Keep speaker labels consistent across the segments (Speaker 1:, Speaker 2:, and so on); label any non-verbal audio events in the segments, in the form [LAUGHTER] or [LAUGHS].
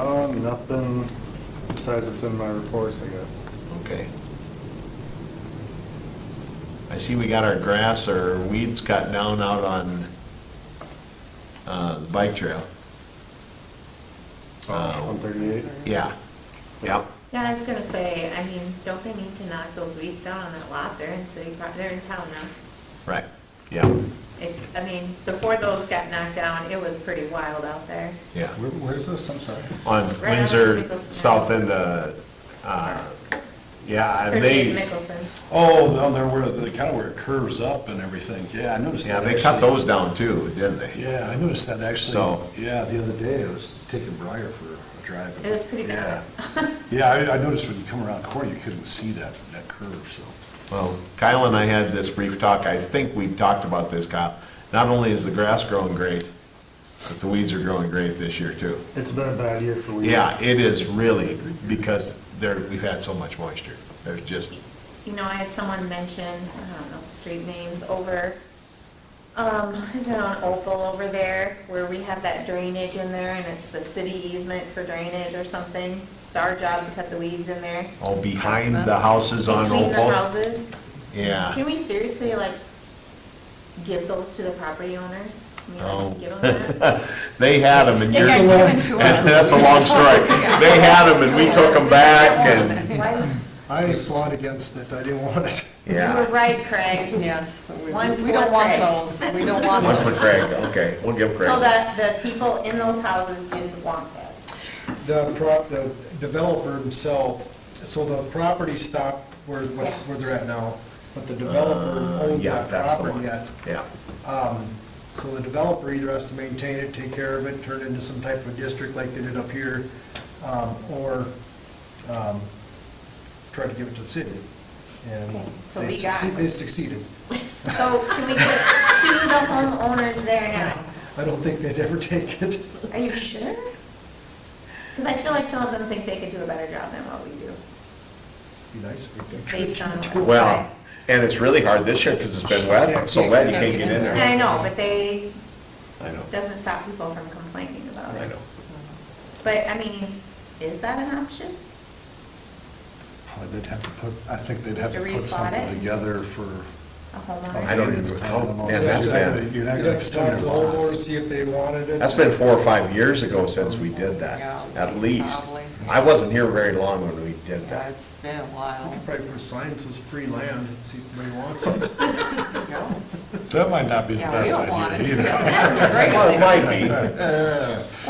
Speaker 1: Um, nothing besides what's in my reports, I guess.
Speaker 2: Okay. I see we got our grass or weeds cut down out on uh, the bike trail. Uh,
Speaker 1: One thirty-eight.
Speaker 2: Yeah, yep.
Speaker 3: Yeah, I was gonna say, I mean, don't they need to knock those weeds down on that lot? They're in city, pro- they're in town now.
Speaker 2: Right, yeah,
Speaker 3: It's, I mean, before those got knocked down, it was pretty wild out there.
Speaker 2: yeah.
Speaker 4: Where, where's this, I'm sorry?
Speaker 2: On
Speaker 3: Right on
Speaker 2: Windsor,
Speaker 3: Mickelson.
Speaker 2: south end of, uh, yeah, and
Speaker 3: Pretty
Speaker 2: they,
Speaker 3: Mickelson.
Speaker 4: Oh, down there where, the kind of where it curves up and everything, yeah, I noticed
Speaker 2: yeah,
Speaker 4: that.
Speaker 2: they cut
Speaker 4: actually.
Speaker 2: those down too, didn't they?
Speaker 4: Yeah, I noticed that actually,
Speaker 2: So-
Speaker 4: yeah, the other day, I was taking Briar for a drive. and-
Speaker 3: It was pretty bad.
Speaker 4: Yeah, Yeah, I, I noticed when you come around the corner, you couldn't see that, that curve, so.
Speaker 2: Well, Kyle and I had this brief talk, I think we talked about this, Kyle. Not only is the grass growing great, but the weeds are growing great this year too.
Speaker 1: It's been a bad year for weeds.
Speaker 2: Yeah, it is really, because there, we've had so much moisture. There's just,
Speaker 3: You know, I had someone mention, I don't know, the street names over, um, is it on Opal over there where we have that drainage in there and it's the city easement for drainage or something? It's our job to cut the weeds in there.
Speaker 2: oh, behind the houses on
Speaker 3: Between the
Speaker 2: Opal.
Speaker 3: houses. Can
Speaker 2: Yeah,
Speaker 3: we seriously, like, give those to the property owners? I mean, like,
Speaker 2: No.
Speaker 3: Give
Speaker 2: [LAUGHS]
Speaker 3: them that?
Speaker 2: they had them and
Speaker 5: They
Speaker 2: years,
Speaker 5: got given to
Speaker 2: [LAUGHS]
Speaker 5: us.
Speaker 2: that's a long story. They had them and we took them back and,
Speaker 3: Why do-
Speaker 4: I fought against it, I didn't want it.
Speaker 3: You were
Speaker 2: yeah.
Speaker 3: right, Craig.
Speaker 5: Yes, we we
Speaker 3: One
Speaker 5: don't
Speaker 3: foot
Speaker 5: want
Speaker 3: reg.
Speaker 5: those, we don't want
Speaker 2: One for
Speaker 5: those.
Speaker 2: Craig, okay, we'll give Craig.
Speaker 3: So that the people in those houses didn't want that.
Speaker 6: The prop, the developer himself, so the property stopped where, what- where they're at now, but the developer
Speaker 2: Uh,
Speaker 6: owns
Speaker 2: Yeah,
Speaker 6: that
Speaker 2: that's the
Speaker 6: property
Speaker 2: one,
Speaker 6: yet.
Speaker 2: yeah.
Speaker 6: Um, So the developer either has to maintain it, take care of it, turn it into some type of district like they did up here, um, or, um, try to give it to the city. And
Speaker 3: Okay, so
Speaker 6: they
Speaker 3: we got-
Speaker 6: succeed- they succeeded.
Speaker 3: So can we give to the homeowners there now?
Speaker 6: I don't think they'd ever [LAUGHS] take it.
Speaker 3: Are you sure? Because I feel like some of them think they could do a better job than what we do,
Speaker 6: Be nice if we
Speaker 3: just
Speaker 6: could.
Speaker 3: based on. what-
Speaker 2: Well, and it's really hard this year because it's been wet, so wet you can't get in
Speaker 3: Yeah, I
Speaker 2: there.
Speaker 3: know, but they,
Speaker 2: I know,
Speaker 3: doesn't stop people from complaining about it.
Speaker 2: I know.
Speaker 3: But, I mean, is that an option?
Speaker 4: Oh, They'd have to put, I think they'd have
Speaker 3: To
Speaker 4: to
Speaker 3: replot
Speaker 4: put something
Speaker 3: it?
Speaker 4: together for.
Speaker 3: A homeowner?
Speaker 2: I don't even-
Speaker 4: It's kind of the most-
Speaker 2: Yeah, that's bad.
Speaker 4: You're not gonna
Speaker 6: You'd have to talk to
Speaker 4: extend
Speaker 6: the
Speaker 4: the
Speaker 6: homeowner,
Speaker 4: laws.
Speaker 6: see if they wanted it.
Speaker 2: That's been four or five years ago since we did that,
Speaker 5: Yeah,
Speaker 2: at least.
Speaker 5: probably.
Speaker 2: I wasn't here very long when we did
Speaker 5: Yeah,
Speaker 2: that.
Speaker 5: it's been a
Speaker 6: You
Speaker 5: while.
Speaker 6: could probably put a sign that says free land, and see if anybody wants it.
Speaker 5: No.
Speaker 4: That might not be the
Speaker 5: Yeah, we
Speaker 4: best
Speaker 5: don't want it.
Speaker 4: idea
Speaker 5: [LAUGHS]
Speaker 4: either.
Speaker 2: Well, it
Speaker 5: Yes,
Speaker 2: might be.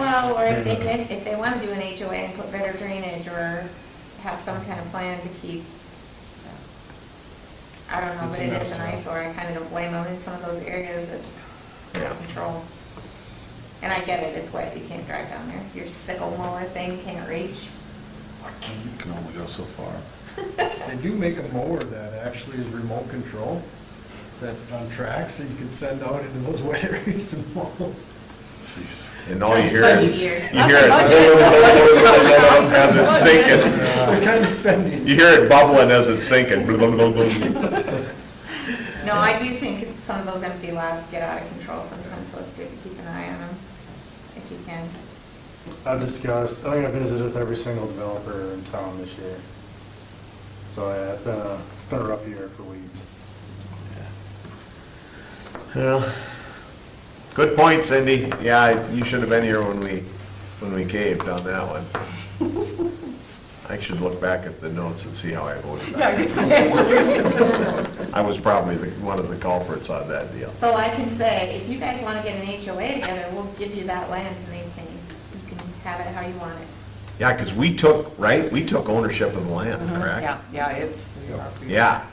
Speaker 4: [LAUGHS]
Speaker 3: Well, or if they, could- if they want to do an HOA and put better drainage or have some kind of plan to keep, uh, I don't know,
Speaker 6: It's
Speaker 3: but
Speaker 6: a
Speaker 3: it
Speaker 6: mess
Speaker 3: is an
Speaker 6: now.
Speaker 3: eyesore. I kind of don't blame them. In some of those areas, it's out
Speaker 2: Yeah.
Speaker 3: of control. And I get it, it's wet, you can't drive down there. Your sickle mower thing can't reach. [LAUGHS]
Speaker 4: You can only go so far.
Speaker 6: They do make a mower that actually is remote control, that on tracks, that you can send out into those [LAUGHS] wet areas and mow.
Speaker 4: Jeez.
Speaker 2: And all you
Speaker 3: That's
Speaker 2: hear is,
Speaker 3: budget
Speaker 2: you hear
Speaker 3: years.
Speaker 2: it
Speaker 5: That's
Speaker 2: [LAUGHS] as [LAUGHS]
Speaker 5: a budget.
Speaker 2: it's sinking.
Speaker 6: What kind of spending?
Speaker 2: You hear it bubbling as it's sinking. Blub, blub, blub, blub.
Speaker 3: No, I do think some of those empty lots get out of control sometimes, so it's good to keep an eye on them if you can.
Speaker 1: I've discussed, I think I visited with every single developer in town this year. So, yeah, it's been a, it's been a rough year for weeds.
Speaker 2: Well, [LAUGHS] Good point, Cindy. Yeah, I- you should have been here when we, when we caved on that one. I should look back at the notes and see how I voted.
Speaker 5: [LAUGHS] Yeah, you're saying.
Speaker 2: I was probably the- one of the culprits on that deal.
Speaker 3: So I can say, if you guys want to get an HOA together, we'll give you that land and they can, you can have it how you want it.
Speaker 2: Yeah, because we took, right, we took ownership of the land,
Speaker 7: Mm-hmm.
Speaker 2: correct?
Speaker 5: Yeah, yeah, it's. we-
Speaker 2: Yeah,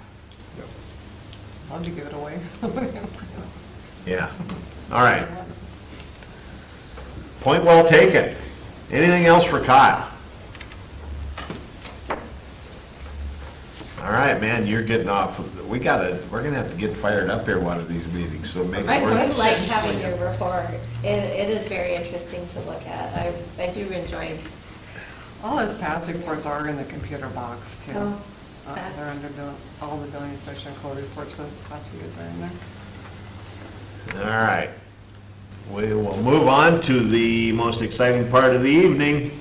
Speaker 5: Love to give it away. [LAUGHS]
Speaker 2: yeah. All right. Point well taken. Anything else for Kyle? All right, man, you're getting off. We gotta, we're gonna have to get fired up here one of these meetings, so make. it
Speaker 7: I
Speaker 2: worth
Speaker 7: quite
Speaker 2: it.
Speaker 7: like having your report. It, it is very interesting to look at. I, I do enjoy.
Speaker 5: All his past reports are in the computer box too.
Speaker 7: Oh,
Speaker 5: Uh, They're
Speaker 7: that's-
Speaker 5: under, bill- all the building inspection code reports for the past few years are in there.
Speaker 2: All right. We will move on to the most exciting part of the evening,